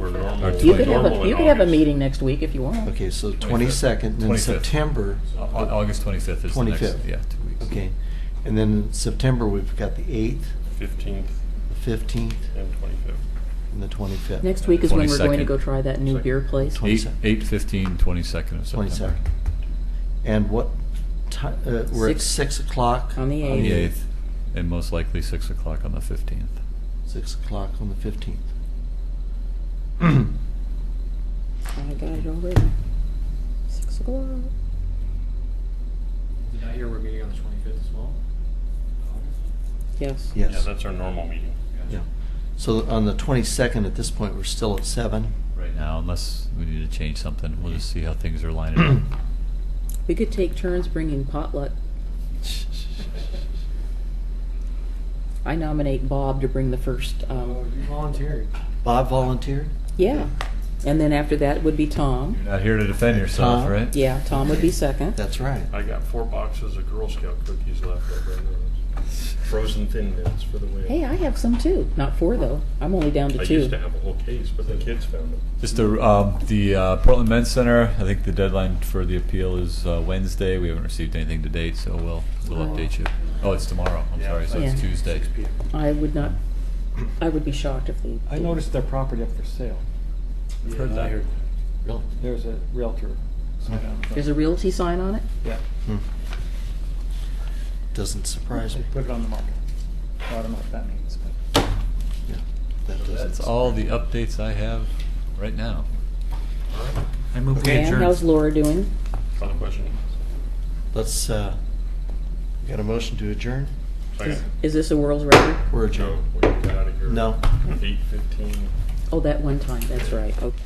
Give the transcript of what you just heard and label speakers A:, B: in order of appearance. A: Or
B: You
A: twenty-
B: could have
C: normal
B: a,
C: in
B: you could have a
C: August.
B: meeting next week if you want.
A: Okay, so
C: 25th.
A: 22nd, then
D: 25th.
A: September,
C: Au- Au- August 25th is the next,
A: 25th.
C: yeah, two weeks.
A: okay. And then in September, we've got the 8th,
C: Fifteenth
A: the 15th,
C: and twenty-fifth.
A: and the 25th.
B: Next week is when we're going to
C: 22nd.
B: go try that new beer place.
A: Twen-
C: Eight,
A: 22nd.
C: eight fifteen, twenty-second of September.
A: 22nd. And what ti, uh, we're at
B: Six.
A: 6 o'clock?
B: On the
C: On the
B: 8th.
C: eighth, and most likely six o'clock on the fifteenth.
A: 6 o'clock on the 15th.
B: I got it already. Six o'clock.
E: Did I hear we're meeting on the twenty-fifth as well?
B: Yes.
A: Yes.
F: our normal meeting.
A: Yeah.
E: Uh,
A: So on the 22nd, at this point, we're still at 7.
C: Right now, unless we need to change something, we'll just see how things are lining up.
B: We could take turns bringing potluck. I nominate Bob to bring the first,
E: Oh,
B: um,
E: you volunteered.
A: Bob volunteered?
B: yeah. And then after that would be Tom.
C: You're not here to defend yourself,
A: Tom?
C: right?
B: Yeah, Tom would be second.
A: That's right.
F: I got four boxes of Girl Scout cookies left over. in those. Frozen thin mints for the win.
B: Hey, I have some too. Not four though. I'm only down
F: I
B: to
F: used
B: two.
F: to have a whole case, but the kids found them.
C: Just the, um, the uh, Portland Men's Center, I think the deadline for the appeal is uh, Wednesday. We haven't received anything to date, so we'll, we'll update you. Oh, it's tomorrow, I'm sorry, so
B: Yeah.
C: it's Tuesday.
B: I would not, I would be shocked if they.
G: I
B: didn't.
G: noticed their property up for sale.
F: Heard that.
A: Really?
G: There's a Realtor. sign on front.
B: There's a realty sign on it?
G: Yeah,
A: Hmm. Doesn't surprise
G: they
A: me.
G: put it on the market. I don't know what that means, but.
A: Yeah, that doesn't
C: That's
A: surprise
C: all
A: me.
C: the updates I have right now.
G: I move
A: Okay,
B: And how's Laura doing?
F: Other question?
A: Let's, uh, we got a motion to adjourn?
F: Second.
B: Is this a world's record?
A: We're
F: No,
A: adjourned.
F: we got out of here.
A: No.
F: Eight fifteen.
B: Oh, that one time, that's right, okay.